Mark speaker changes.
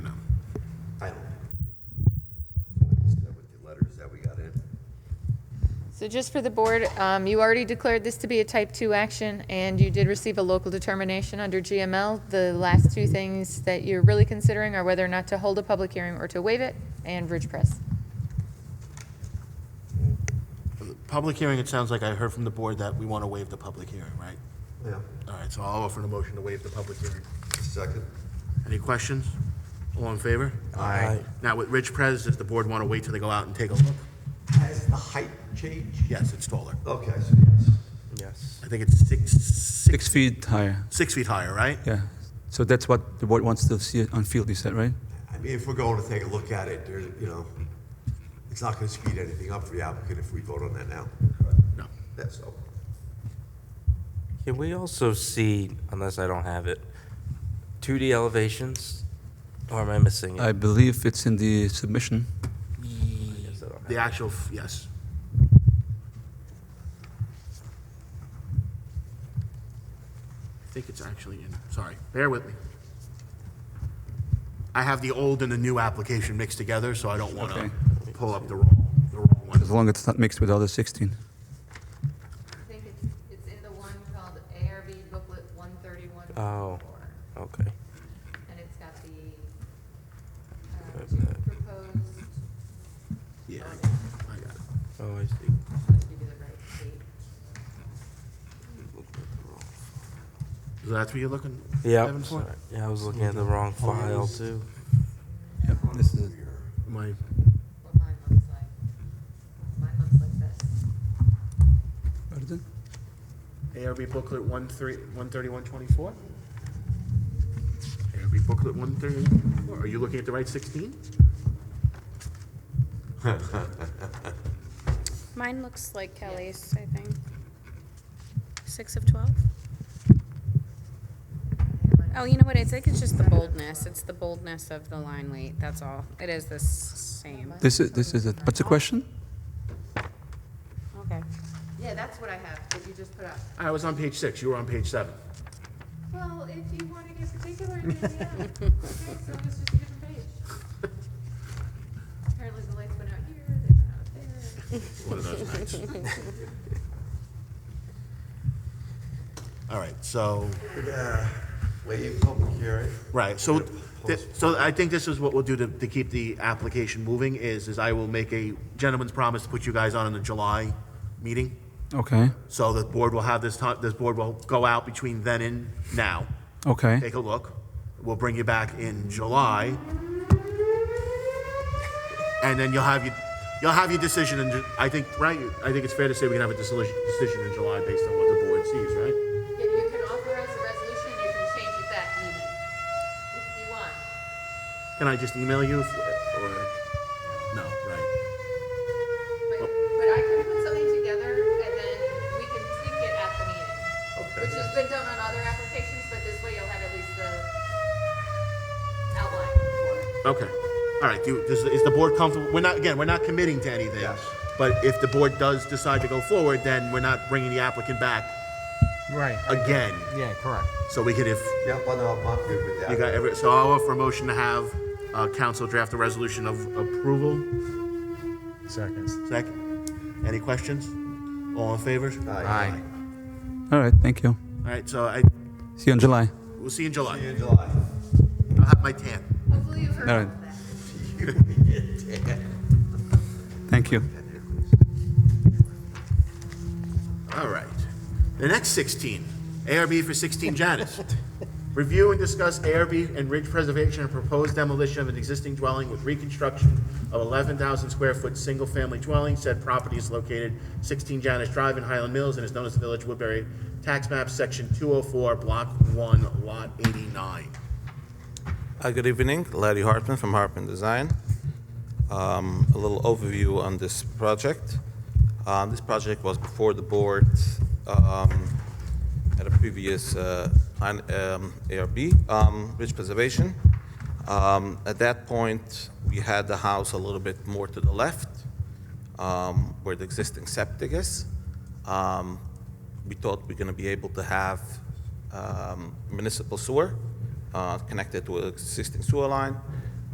Speaker 1: So just for the board, um, you already declared this to be a type 2 action, and you did receive a local determination under GML. The last two things that you're really considering are whether or not to hold a public hearing or to waive it, and Ridge Press.
Speaker 2: Public hearing, it sounds like I heard from the board that we want to waive the public hearing, right?
Speaker 3: Yeah.
Speaker 2: All right, so I'll offer the motion to waive the public hearing.
Speaker 3: Second?
Speaker 2: Any questions? All in favor? Aye. Now, with Rich Pres, does the board want to wait till they go out and take a look?
Speaker 3: Has the height changed?
Speaker 2: Yes, it's taller.
Speaker 3: Okay, so yes.
Speaker 4: Yes.
Speaker 2: I think it's six,
Speaker 4: Six
Speaker 2: six,
Speaker 4: feet higher,
Speaker 2: six feet higher, right?
Speaker 4: yeah. So that's what the board wants to see on field, you said, right?
Speaker 3: I mean, if we're going to take a look at it, there's, you know, it's not going to speed anything up for the applicant if we vote on that now.
Speaker 2: No.
Speaker 3: That's all.
Speaker 5: Can we also see, unless I don't have it, 2D elevations? Or am I missing it?
Speaker 4: I believe it's in the submission.
Speaker 5: guess I don't have
Speaker 2: The
Speaker 5: it.
Speaker 2: actual, f- yes. I think it's actually in, sorry, bear with me. I have the old and the new application mixed together, so I don't want
Speaker 4: Okay.
Speaker 2: to pull up the wrong, the wrong one.
Speaker 4: As long as it's not mixed with other 16.
Speaker 1: I think it's, it's in the one called ARB booklet 131.
Speaker 5: Oh. Okay.
Speaker 1: And it's got
Speaker 5: uh,
Speaker 1: the,
Speaker 5: two
Speaker 1: proposed, um,
Speaker 2: Yeah, I got it.
Speaker 5: Oh, I see.
Speaker 1: give you the right date.
Speaker 2: Is that what you're looking?
Speaker 5: Yeah.
Speaker 2: Evan, for?
Speaker 5: Yeah, I was looking at the wrong file too.
Speaker 4: Yep, this is
Speaker 2: My,
Speaker 1: what mine looks like. Mine looks like this.
Speaker 4: Pardon?
Speaker 2: ARB booklet one three, one thirty-one twenty-four? ARB booklet one thirty-one, are you looking at the right sixteen?
Speaker 6: Mine looks like Kelly's, I think. Six of 12? Oh, you know what? I think it's just the boldness. It's the boldness of the line weight. That's all. It is the s- same.
Speaker 4: This is, this is it. What's the question?
Speaker 6: Okay.
Speaker 1: Yeah, that's what I have, that you just put up.
Speaker 2: I was on page six, you were on page seven.
Speaker 1: Well, if you want to get particular, then yeah. Okay, so it's just a different page. Apparently the lights went out here, they went out there.
Speaker 2: One of those nights. All right, so,
Speaker 3: Waive public hearing.
Speaker 2: right, so, thi- so I think this is what we'll do to, to keep the application moving is, is I will make a gentleman's promise to put you guys on in the July meeting.
Speaker 4: Okay,
Speaker 2: So the board will have this time, this board will go out between then and now,
Speaker 4: okay.
Speaker 2: take a look. We'll bring you back in July. And then you'll have your, you'll have your decision in, Ju- I think, right? I think it's fair to say we can have a decision, decision in July based on what the board sees, right?
Speaker 1: Yeah, you can authorize a resolution, you can change it that evening, if you want.
Speaker 2: Can I just email you if- or, no, right?
Speaker 1: But, but I can put something together and then we can tweak it at the meeting. Which has been done on other applications, but this way you'll have at least the outline for it.
Speaker 2: Okay. All right, do, does, is the board comfortable? We're not, again, we're not committing to anything.
Speaker 3: Yes.
Speaker 2: But if the board does decide to go forward, then we're not bringing the applicant back
Speaker 7: Right.
Speaker 2: again.
Speaker 7: Yeah, correct.
Speaker 2: So we could, if
Speaker 3: Yeah, but I'm not good with
Speaker 2: you
Speaker 3: that.
Speaker 2: got every, so I'll offer a motion to have, uh, council draft a resolution of approval.
Speaker 7: Seconds.
Speaker 2: Second, any questions? All in favor?
Speaker 3: Aye.
Speaker 4: All right, thank you.
Speaker 2: All right, so I,
Speaker 4: See you in July.
Speaker 2: we'll see you in July.
Speaker 3: See you in July.
Speaker 2: I'll have my tan.
Speaker 1: Hopefully you heard
Speaker 4: All
Speaker 1: all
Speaker 4: right.
Speaker 1: of that.
Speaker 4: Thank you.
Speaker 2: All right. The next 16, ARB for 16 Janus. Review and discuss ARB and ridge preservation and proposed demolition of an existing dwelling with reconstruction of 11,000 square foot single-family dwelling. Said property is located 16 Janus Drive in Highland Mills and is known as the Village Woodbury Tax Map, Section 204, Block 1, Lot 89.
Speaker 8: Uh, Good evening, Larry Hartman from Hartman Design. Um, A little overview on this project. Um, This project was before the board um, at a previous uh, plan- um, ARB, um, Ridge Preservation. Um, At that point, we had the house a little bit more to the left um, where the existing septic is. Um, We thought we're going to be able to have um, municipal sewer uh, connected to an existing sewer line.